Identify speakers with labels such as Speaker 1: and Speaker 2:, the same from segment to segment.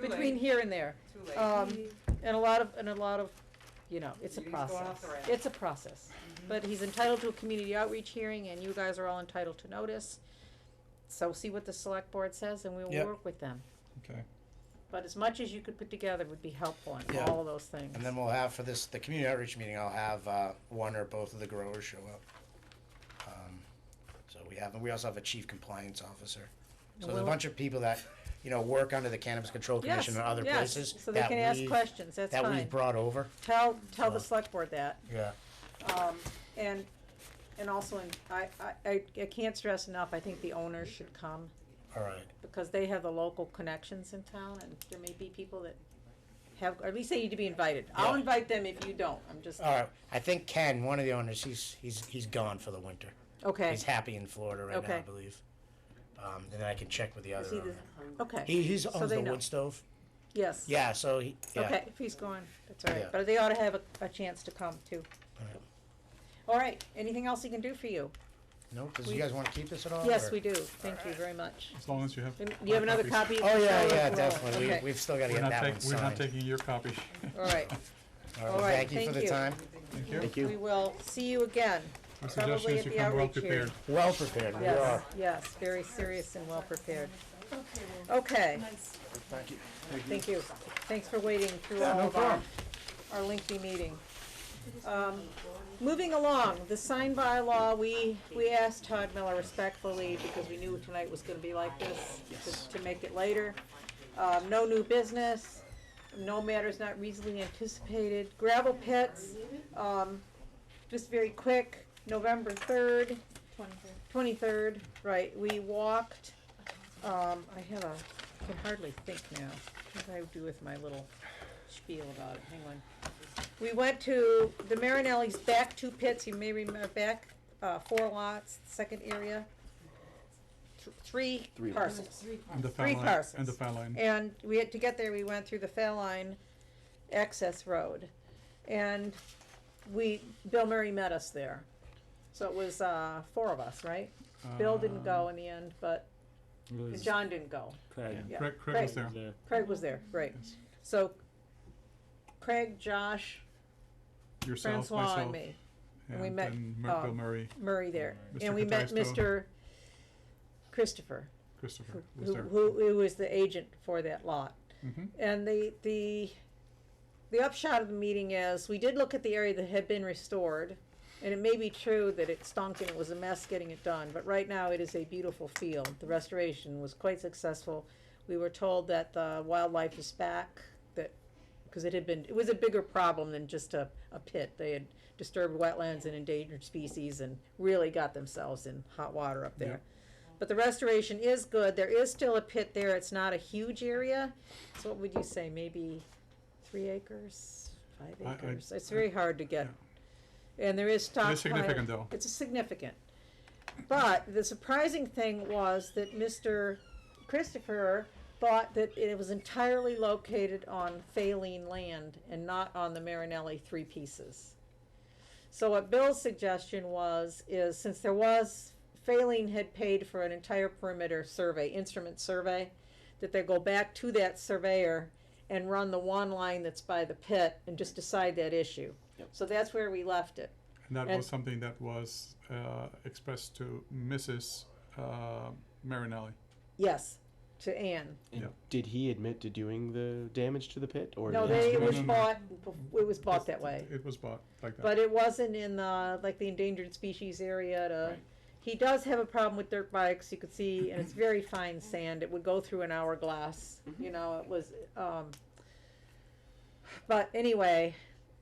Speaker 1: between here and there.
Speaker 2: Too late.
Speaker 1: Um, and a lot of, and a lot of, you know, it's a
Speaker 2: He's going off
Speaker 1: process.
Speaker 2: the rails.
Speaker 1: It's a process. But he's entitled to a community outreach hearing and you guys are all entitled to notice. So see what the select board says and we will
Speaker 3: Yep.
Speaker 1: work with them.
Speaker 3: Okay.
Speaker 1: But as much as you could put together would be helpful in
Speaker 3: Yeah.
Speaker 1: all of those things.
Speaker 3: And then we'll have for this, the community outreach meeting, I'll have, uh, one or both of the growers show up. Um, So we have, and we also have a chief compliance officer. So there's a
Speaker 1: Well-
Speaker 3: bunch of people that, you know, work under the Cannabis Control
Speaker 1: Yes,
Speaker 3: Commission and other
Speaker 1: yes.
Speaker 3: places.
Speaker 1: So they
Speaker 3: that
Speaker 1: can ask
Speaker 3: we've-
Speaker 1: questions, that's
Speaker 3: That we've
Speaker 1: fine.
Speaker 3: brought over,
Speaker 1: Tell, tell
Speaker 3: Uh,
Speaker 1: the select board that.
Speaker 3: yeah.
Speaker 1: Um, and, and also, in- I, I, I, I can't stress enough, I think the owners should come
Speaker 3: All right,
Speaker 1: because they have the local connections in town and there may be people that have, or at least they need to be invited. I'll
Speaker 3: Yeah. Uh,
Speaker 1: invite them if you don't, I'm just,
Speaker 3: all right. I think Ken, one of the owners, he's, he's, he's gone for the winter.
Speaker 1: okay,
Speaker 3: He's happy in Florida right now, I
Speaker 1: Okay.
Speaker 3: believe. Um, and then I can check with the other
Speaker 1: he the-
Speaker 3: owner.
Speaker 1: okay,
Speaker 3: He, he's
Speaker 1: So
Speaker 3: owns
Speaker 1: they
Speaker 3: the
Speaker 1: know.
Speaker 3: wood stove.
Speaker 1: yes.
Speaker 3: Yeah, so he, yeah.
Speaker 1: Okay, if he's gone, that's all
Speaker 3: Yeah.
Speaker 1: right, but they ought to have a, a chance to come too.
Speaker 3: All right.
Speaker 1: All right, anything else he can do for you?
Speaker 3: No, does
Speaker 1: We-
Speaker 3: you guys wanna keep this at all?
Speaker 1: Yes,
Speaker 3: or-
Speaker 1: we do, thank you very much.
Speaker 4: As long as you have.
Speaker 1: And
Speaker 4: my
Speaker 1: you have another
Speaker 4: copies.
Speaker 1: copy?
Speaker 3: Oh, yeah,
Speaker 1: Charlotte?
Speaker 3: yeah,
Speaker 1: No,
Speaker 3: definitely. We,
Speaker 1: okay.
Speaker 3: we've still gotta
Speaker 4: We're
Speaker 3: get
Speaker 4: not
Speaker 3: that one
Speaker 4: taking, we're not
Speaker 3: signed.
Speaker 4: taking your copy.
Speaker 1: All right,
Speaker 3: All right,
Speaker 1: All
Speaker 3: well,
Speaker 1: right,
Speaker 3: thank you for
Speaker 1: thank
Speaker 3: the
Speaker 1: you.
Speaker 3: time.
Speaker 4: Thank you.
Speaker 1: we will see you again,
Speaker 4: My
Speaker 1: probably
Speaker 4: suggestion
Speaker 1: at
Speaker 4: is you
Speaker 1: the
Speaker 4: come well
Speaker 1: outreach hearing.
Speaker 4: prepared.
Speaker 3: Well prepared, we
Speaker 1: yes,
Speaker 3: are.
Speaker 1: yes, very serious and well prepared. Okay.
Speaker 3: Thank you.
Speaker 1: Thank you. Thanks for waiting through all of our, our lengthy meeting. Um, Moving along, the sign by law, we, we asked Todd Miller respectfully, because we knew tonight was gonna be like this, to, to make it later. Um, no new business, no matters not reasonably anticipated, gravel pits, um, just very quick, November third, twenty-third, right, we walked, um, I have a, I can hardly think now, what do I do with my little spiel about it, hang on. We went to the Marinelli's back two pits, you may remember, back, uh, four lots, second area, th- three parcels.
Speaker 4: And the
Speaker 1: Three
Speaker 4: foul line, and the
Speaker 1: parcels.
Speaker 4: foul line.
Speaker 1: And we had, to get there, we went through the Fairline access road. And we, Bill Murray met us there. So it was, uh, four of us, right? Bill didn't
Speaker 4: Uh,
Speaker 1: go in the end, but, and John didn't go.
Speaker 5: Craig.
Speaker 1: yeah.
Speaker 4: Craig, Craig was there.
Speaker 1: Craig.
Speaker 5: Yeah.
Speaker 1: Craig was there, right. So Craig, Josh,
Speaker 4: Yourself,
Speaker 1: Francois and
Speaker 4: myself,
Speaker 1: me, and we
Speaker 4: and
Speaker 1: met,
Speaker 4: then Mur- Bill
Speaker 1: um,
Speaker 4: Murray,
Speaker 1: Murray there.
Speaker 4: Mr.
Speaker 1: And we met
Speaker 4: Cataisto.
Speaker 1: Mr. Christopher,
Speaker 4: Christopher was
Speaker 1: who,
Speaker 4: there.
Speaker 1: who, who was the agent for that lot.
Speaker 4: Mhm.
Speaker 1: And the, the, the upshot of the meeting is, we did look at the area that had been restored, and it may be true that it stunk and it was a mess getting it done, but right now it is a beautiful field. The restoration was quite successful. We were told that the wildlife is back, that, because it had been, it was a bigger problem than just a, a pit. They had disturbed wetlands and endangered species and really got themselves in hot water up there. But the restoration is good. There is still a pit there. It's not a huge area. So what would you say, maybe three acres, five
Speaker 4: I- I-
Speaker 1: acres? It's very hard to get. And there is stockpile.
Speaker 4: It is significant though.
Speaker 1: It's significant. But the surprising thing was that Mr. Christopher thought that it was entirely located on Faline land and not on the Marinelli three pieces. So what Bill's suggestion was, is since there was, Faline had paid for an entire perimeter survey, instrument survey, that they go back to that surveyor and run the one line that's by the pit and just decide that issue. So that's where we left it.
Speaker 4: And that
Speaker 1: and-
Speaker 4: was something that was, uh, expressed to Mrs., uh, Marinelli.
Speaker 1: Yes, to Anne.
Speaker 5: And
Speaker 4: Yeah.
Speaker 5: Did he admit to doing the damage to the pit, or
Speaker 1: No,
Speaker 5: did he-
Speaker 1: they, it
Speaker 4: No,
Speaker 1: was
Speaker 4: no, no.
Speaker 1: bought, it was bought that way.
Speaker 4: It was bought like that.
Speaker 1: But it wasn't in the, like, the endangered species area to, he does have a problem with dirt bikes, you could see, and it's very fine sand, it would go through an hourglass,
Speaker 4: Mm-hmm.
Speaker 1: you know, it was, um, but anyway,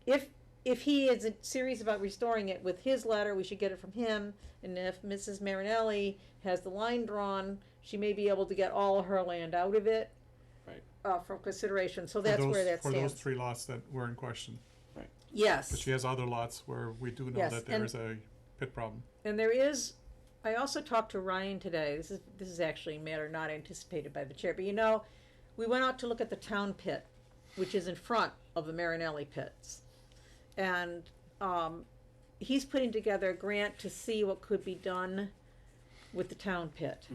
Speaker 1: if, if he is serious about restoring it with his letter, we should get it from him, and if Mrs. Marinelli has the line drawn, she may be able to get all her land out of it.
Speaker 5: Right.
Speaker 1: Uh, for consideration, so
Speaker 4: For
Speaker 1: that's
Speaker 4: those-
Speaker 1: where that
Speaker 4: For those
Speaker 1: stands,
Speaker 4: three lots that were in question.
Speaker 1: yes.
Speaker 4: But she has other lots where we do know
Speaker 1: Yes,
Speaker 4: that there
Speaker 1: and-
Speaker 4: is a pit problem.
Speaker 1: And there is, I also talked to Ryan today, this is, this is actually a matter not anticipated by the chair, but you know, we went out to look at the town pit, which is in front of the Marinelli pits. And, um, he's putting together a grant to see what could be done with the town pit.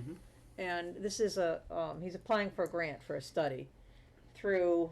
Speaker 1: And this is a, um, he's applying for a grant for a study through